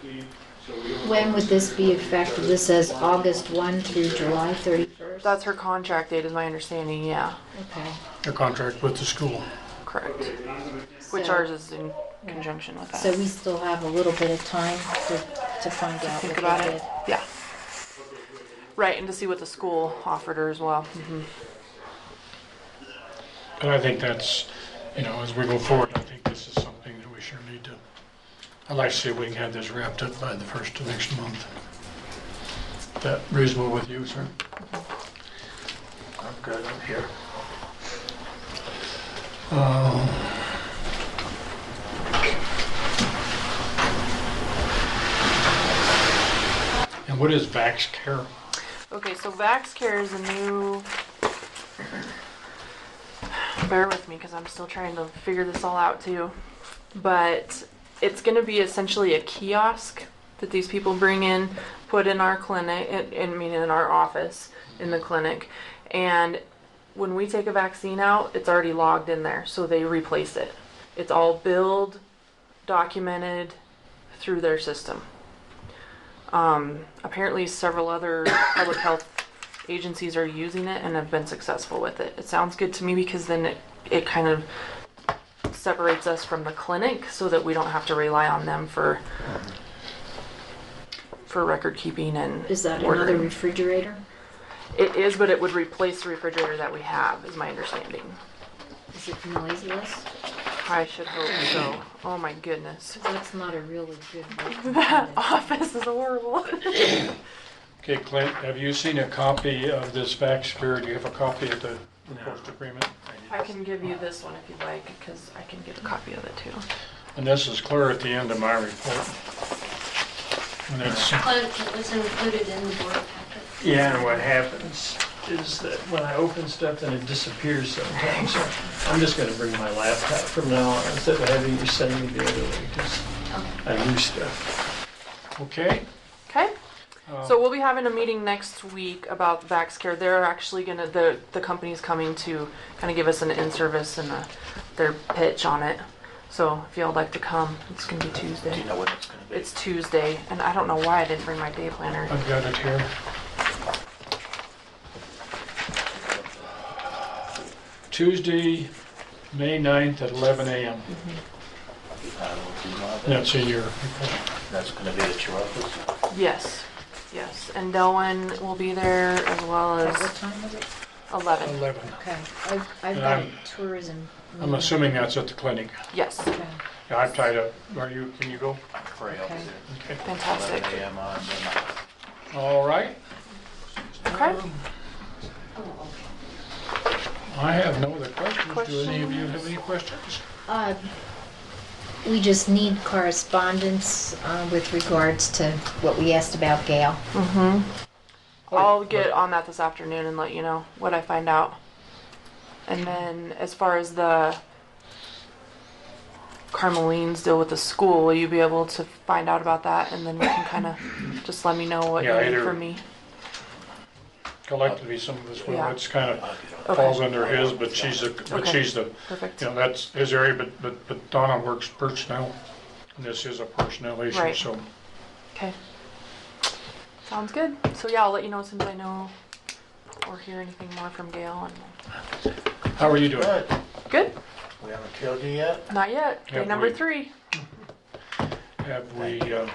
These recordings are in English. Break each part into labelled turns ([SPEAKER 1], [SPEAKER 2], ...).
[SPEAKER 1] fee, so we only.
[SPEAKER 2] When would this be effective? This says August 1 through July 31st.
[SPEAKER 3] That's her contract date, is my understanding, yeah,
[SPEAKER 2] Okay.
[SPEAKER 4] a contract with the school.
[SPEAKER 3] correct.
[SPEAKER 1] Okay, and I'm gonna-
[SPEAKER 3] Which
[SPEAKER 2] So-
[SPEAKER 3] ours is in conjunction with that.
[SPEAKER 2] So we still have a little bit of time to, to find out
[SPEAKER 3] Think
[SPEAKER 2] what
[SPEAKER 3] about
[SPEAKER 2] they
[SPEAKER 3] it,
[SPEAKER 2] did.
[SPEAKER 3] yeah. Right, and to see what the school offered her as well.
[SPEAKER 2] Mm-hmm.
[SPEAKER 4] But I think that's, you know, as we go forward, I think this is something that we sure need to, I'd like to see if we can have this wrapped up by the first of next month. Is that reasonable with you, sir? I'm good, I'm here. Uh, And what is Vax Care?
[SPEAKER 3] Okay, so Vax Care is a new. Bear with me because I'm still trying to figure this all out too. But it's going to be essentially a kiosk that these people bring in, put in our clinic, in- in- I mean, in our office, in the clinic. And when we take a vaccine out, it's already logged in there, so they replace it. It's all billed, documented through their system um, apparently several other public health agencies are using it and have been successful with it. It sounds good to me because then it, it kind of separates us from the clinic so that we don't have to rely on them for for record keeping and
[SPEAKER 2] Is that another
[SPEAKER 3] ordering.
[SPEAKER 2] refrigerator?
[SPEAKER 3] It is, but it would replace the refrigerator that we have, is my understanding.
[SPEAKER 2] Is it noiseless?
[SPEAKER 3] I should hope so. Oh my goodness.
[SPEAKER 2] That's not a really good one.
[SPEAKER 3] That office is horrible.
[SPEAKER 4] Okay, Clint, have you seen a copy of this fax here? Do you have a copy of the proposed agreement?
[SPEAKER 3] I can give you this one if you'd like, because I can get a copy of it too.
[SPEAKER 4] And this is clear at the end of my report. And it's,
[SPEAKER 5] Clint, it was included in the board packet.
[SPEAKER 6] Yeah, and what happens is that when I open stuff, then it disappears sometimes. So I'm just gonna bring my laptop from now on instead of having you send me the other way, because I lose stuff.
[SPEAKER 4] okay?
[SPEAKER 3] Okay?
[SPEAKER 4] uh,
[SPEAKER 3] So we'll be having a meeting next week about VaxCare. They're actually gonna, the, the company's coming to kind of give us an in-service and a, their pitch on it. So if y'all like to come, it's gonna be
[SPEAKER 7] Do
[SPEAKER 3] Tuesday.
[SPEAKER 7] you know when it's gonna be?
[SPEAKER 3] It's Tuesday, and I don't know why I didn't bring my day planner.
[SPEAKER 4] I've got it here. Tuesday, May 9th at 11 a.m.
[SPEAKER 7] Uh, do you know that?
[SPEAKER 4] That's in your report.
[SPEAKER 7] That's gonna be at your office?
[SPEAKER 3] Yes, yes, and Delwyn will be there as well
[SPEAKER 2] At what
[SPEAKER 3] as
[SPEAKER 2] time was it?
[SPEAKER 3] eleven.
[SPEAKER 4] 11.
[SPEAKER 2] Okay. I've, I've
[SPEAKER 4] And
[SPEAKER 2] got a
[SPEAKER 4] I'm-
[SPEAKER 2] tourism.
[SPEAKER 4] Um, I'm
[SPEAKER 2] meeting.
[SPEAKER 4] assuming that's at the clinic.
[SPEAKER 3] Yes,
[SPEAKER 2] Okay.
[SPEAKER 4] Yeah, I'm tied up. Are you, can you go?
[SPEAKER 7] I'm afraid I'll be
[SPEAKER 2] Okay.
[SPEAKER 4] Okay.
[SPEAKER 7] there.
[SPEAKER 3] fantastic.
[SPEAKER 7] 11 AM on the night.
[SPEAKER 4] All right.
[SPEAKER 3] Okay,
[SPEAKER 4] I have no other questions. Do any of you
[SPEAKER 3] Questions?
[SPEAKER 4] have any questions?
[SPEAKER 2] Uh, We just need correspondence uh, with regards to what we asked about Gail.
[SPEAKER 3] I'll get on that this afternoon and let you know what I find out. And then as far as the Carmeline's deal with the school, will you be able to find out about that? And then we can kind of just let me know what
[SPEAKER 4] Yeah,
[SPEAKER 3] you need
[SPEAKER 4] either-
[SPEAKER 3] from me.
[SPEAKER 4] collectively, some of us, well,
[SPEAKER 3] Yeah.
[SPEAKER 4] it's kind of
[SPEAKER 7] I'll get on.
[SPEAKER 4] falls under his, but she's the, but
[SPEAKER 3] Okay.
[SPEAKER 4] she's the,
[SPEAKER 3] Perfect.
[SPEAKER 4] you know, that's his area, but, but, but Donna works personnel. And this is a personnel issue,
[SPEAKER 3] Right.
[SPEAKER 4] so,
[SPEAKER 3] Okay. Sounds good. So yeah, I'll let you know as soon as I know or hear anything more from Gail. And
[SPEAKER 4] how are you doing?
[SPEAKER 7] Good.
[SPEAKER 3] good.
[SPEAKER 7] We haven't killed you yet?
[SPEAKER 3] Not yet. Day
[SPEAKER 4] Yeah,
[SPEAKER 3] number
[SPEAKER 4] we-
[SPEAKER 3] three.
[SPEAKER 4] Have we, uh,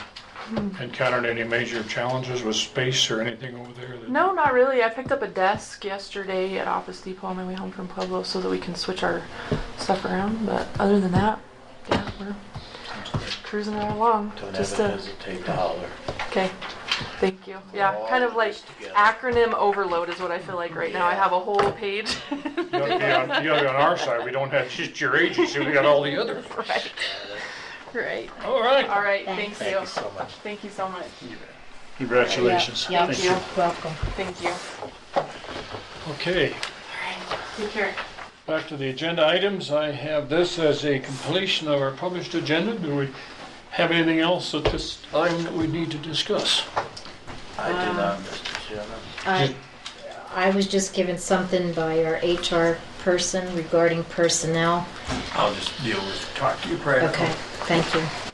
[SPEAKER 4] encountered any major challenges with space or anything over there? that-
[SPEAKER 3] No, not really. I picked up a desk yesterday at Office Depot on my way home from Pueblo so that we can switch our stuff around. But other than that, yeah, we're cruising right along.
[SPEAKER 7] Don't
[SPEAKER 3] Just
[SPEAKER 7] ever
[SPEAKER 3] to,
[SPEAKER 7] hesitate to holler.
[SPEAKER 3] okay. Thank you. Yeah,
[SPEAKER 7] All
[SPEAKER 3] kind of like
[SPEAKER 7] this together.
[SPEAKER 3] acronym overload is what I feel like right now. I
[SPEAKER 7] Yeah.
[SPEAKER 3] have a whole page.
[SPEAKER 4] You gotta be on, you gotta be on our side, we don't have just your agency, we got all the others.
[SPEAKER 3] right. Right.
[SPEAKER 4] All right.
[SPEAKER 3] All right. Thank,
[SPEAKER 2] Thanks.
[SPEAKER 7] Thank you so much.
[SPEAKER 3] Thank you so much.
[SPEAKER 4] Congratulations.
[SPEAKER 2] Yeah,
[SPEAKER 3] Thank
[SPEAKER 2] you're welcome.
[SPEAKER 3] Thank you.
[SPEAKER 4] Okay.
[SPEAKER 3] Take care.
[SPEAKER 4] Back to the agenda items, I have this as a completion of our published agenda. Do we have anything else at this time that we need to discuss?
[SPEAKER 7] I do
[SPEAKER 2] Um,
[SPEAKER 7] not, Mr. Chairman.
[SPEAKER 2] I, Uh, I was just given something by our HR person regarding personnel.
[SPEAKER 7] I'll just deal with, talk to you privately.
[SPEAKER 2] Okay, thank you.